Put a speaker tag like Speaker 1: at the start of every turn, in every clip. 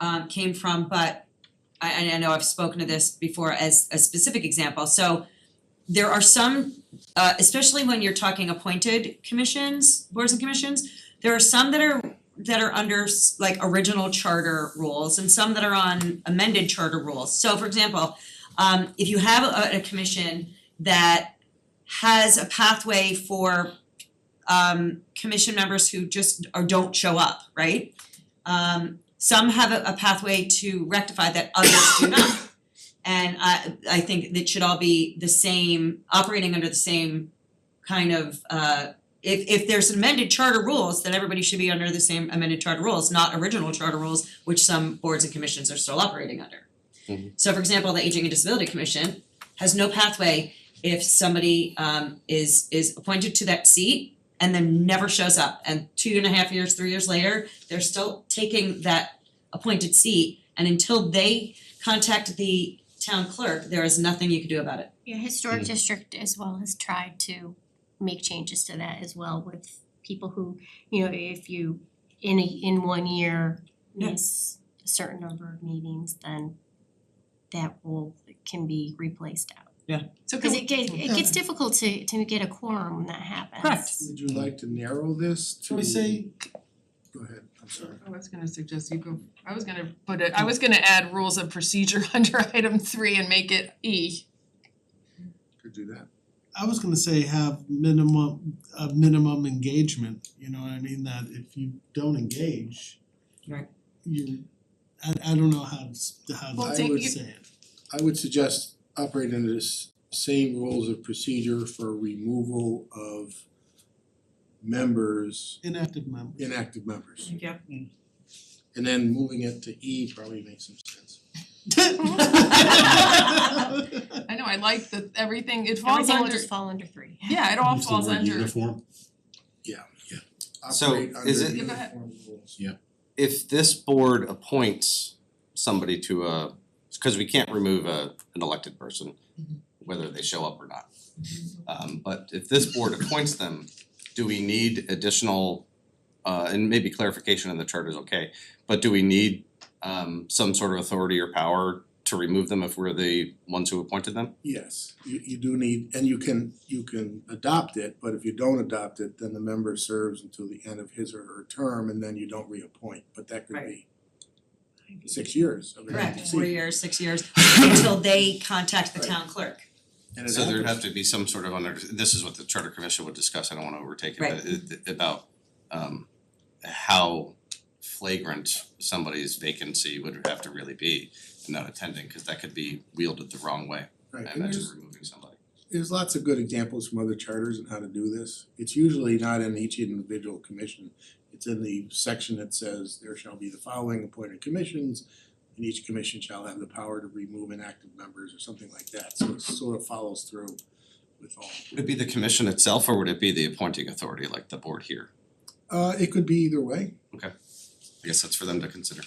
Speaker 1: um came from, but I I I know I've spoken to this before as a specific example, so there are some, uh especially when you're talking appointed commissions, boards and commissions, there are some that are that are under s- like original charter rules and some that are on amended charter rules. So for example, um if you have a a commission that has a pathway for um commission members who just or don't show up, right? Um some have a a pathway to rectify that others do not. And I I think that should all be the same, operating under the same kind of uh if if there's amended charter rules, then everybody should be under the same amended charter rules, not original charter rules, which some boards and commissions are still operating under.
Speaker 2: Mhm.
Speaker 1: So for example, the Aging and Disability Commission has no pathway if somebody um is is appointed to that seat and then never shows up and two and a half years, three years later, they're still taking that appointed seat and until they contact the town clerk, there is nothing you can do about it.
Speaker 3: Your historic
Speaker 2: Mm.
Speaker 3: district as well has tried to make changes to that as well with people who, you know, if you in a in one year
Speaker 1: Yeah.
Speaker 3: miss a certain number of meetings, then that rule can be replaced out.
Speaker 1: So
Speaker 3: Cause it gets it gets difficult to to get a quorum when that happens.
Speaker 1: Correct.
Speaker 4: Would you like to narrow this to?
Speaker 5: Can we say,
Speaker 4: Go ahead, I'm sorry.
Speaker 5: I was gonna suggest you go, I was gonna put it, I was gonna add rules of procedure under item three and make it E.
Speaker 4: Could do that.
Speaker 6: I was gonna say have minimum, a minimum engagement, you know what I mean, that if you don't engage.
Speaker 1: Right.
Speaker 6: You, I I don't know how to s- how
Speaker 5: Well,
Speaker 6: to
Speaker 4: take
Speaker 6: would
Speaker 5: you-
Speaker 6: say it,
Speaker 4: I would suggest operate under this same rules of procedure for removal of members,
Speaker 6: inactive members.
Speaker 4: inactive members.
Speaker 1: Yeah.
Speaker 4: And then moving it to E probably makes some sense.
Speaker 5: I know, I like that everything, it falls
Speaker 3: Everything will
Speaker 5: under,
Speaker 3: just fall under three.
Speaker 5: yeah, it all falls under.
Speaker 2: So,
Speaker 4: Operate under
Speaker 2: is it-
Speaker 5: Yeah, go ahead.
Speaker 4: uniform rules.
Speaker 2: if this board appoints somebody to a, cause we can't remove a an elected person, whether they show up or not. Um but if this board appoints them, do we need additional, uh and maybe clarification in the chart is okay, but do we need um some sort of authority or power to remove them if we're the ones who appointed them?
Speaker 4: Yes, you you do need, and you can you can adopt it, but if you don't adopt it, then the member serves until the end of his or her term and then you don't reappoint, but that could be six years of an
Speaker 1: Correct,
Speaker 4: empty
Speaker 1: four
Speaker 4: seat.
Speaker 1: years, six years, until they contact the
Speaker 4: Right.
Speaker 1: town clerk.
Speaker 4: And it
Speaker 2: So there'd have
Speaker 4: happens.
Speaker 2: to be some sort of under, this is what the charter commission would discuss, I don't wanna overtake it,
Speaker 1: Right.
Speaker 2: but it it- about um how flagrant somebody's vacancy would have to really be in not attending, cause that could be wielded the wrong way,
Speaker 4: Right,
Speaker 2: I
Speaker 4: and
Speaker 2: imagine
Speaker 4: there's
Speaker 2: removing somebody.
Speaker 4: there's lots of good examples from other charters on how to do this. It's usually not in each individual commission. It's in the section that says there shall be the following appointed commissions and each commission shall have the power to remove inactive members or something like that. So it sort of follows through with all.
Speaker 2: Would it be the commission itself or would it be the appointing authority like the board here?
Speaker 4: Uh it could be either way.
Speaker 2: I guess that's for them to consider.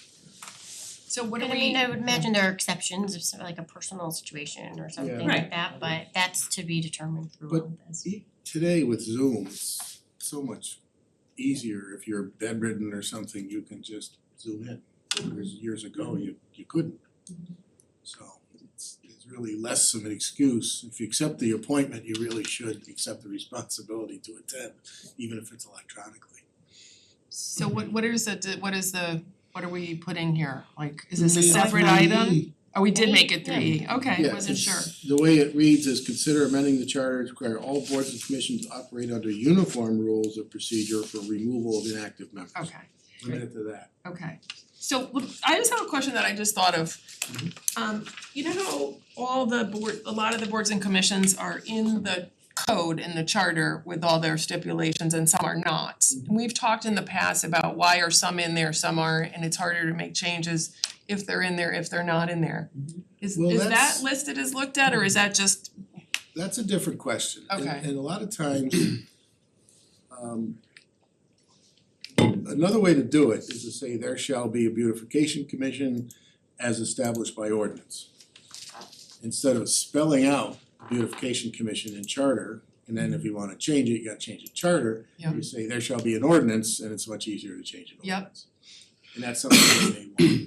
Speaker 5: So what do
Speaker 3: But
Speaker 5: we?
Speaker 3: I mean, I would imagine there are exceptions if some like a personal situation or something
Speaker 1: Right.
Speaker 3: like that, but that's to be determined through
Speaker 4: But
Speaker 3: all this.
Speaker 4: E- today with Zoom, it's so much easier if you're bedridden or something, you can just zoom in. Whereas years ago,
Speaker 5: Mm-hmm.
Speaker 4: you you couldn't. So it's it's really less of an excuse. If you accept the appointment, you really should accept the responsibility to attend, even if it's electronically.
Speaker 5: So what what is it, what is the, what are we putting here? Like, is this a
Speaker 6: Maybe
Speaker 5: separate
Speaker 6: that's
Speaker 5: item?
Speaker 6: my E.
Speaker 5: Oh, we did make it three E, okay,
Speaker 4: Yeah,
Speaker 5: wasn't sure.
Speaker 4: it's- The way it reads is consider amending the charter to require all boards and commissions to operate under uniform rules of procedure for removal of inactive members.
Speaker 5: Okay.
Speaker 4: Limit it to that.
Speaker 5: Okay, so look, I just have a question that I just thought of. Um you know how all the board, a lot of the boards and commissions are in the code in the charter with all their stipulations and some are not.
Speaker 4: Mm-hmm.
Speaker 5: And we've talked in the past about why are some in there, some aren't, and it's harder to make changes if they're in there, if they're not in there. Is
Speaker 4: Mm-hmm. Well,
Speaker 5: is that
Speaker 4: that's-
Speaker 5: listed as looked at or is that just,
Speaker 4: That's a different question. And-
Speaker 5: Okay.
Speaker 4: And a lot of times, um another way to do it is to say there shall be a beautification commission as established by ordinance. Instead of spelling out beautification commission in charter, and then if you wanna change it, you gotta change the charter.
Speaker 5: Yeah.
Speaker 4: You say there shall be an ordinance, and it's much easier to change an
Speaker 5: Yep.
Speaker 4: ordinance. And that's something that they want.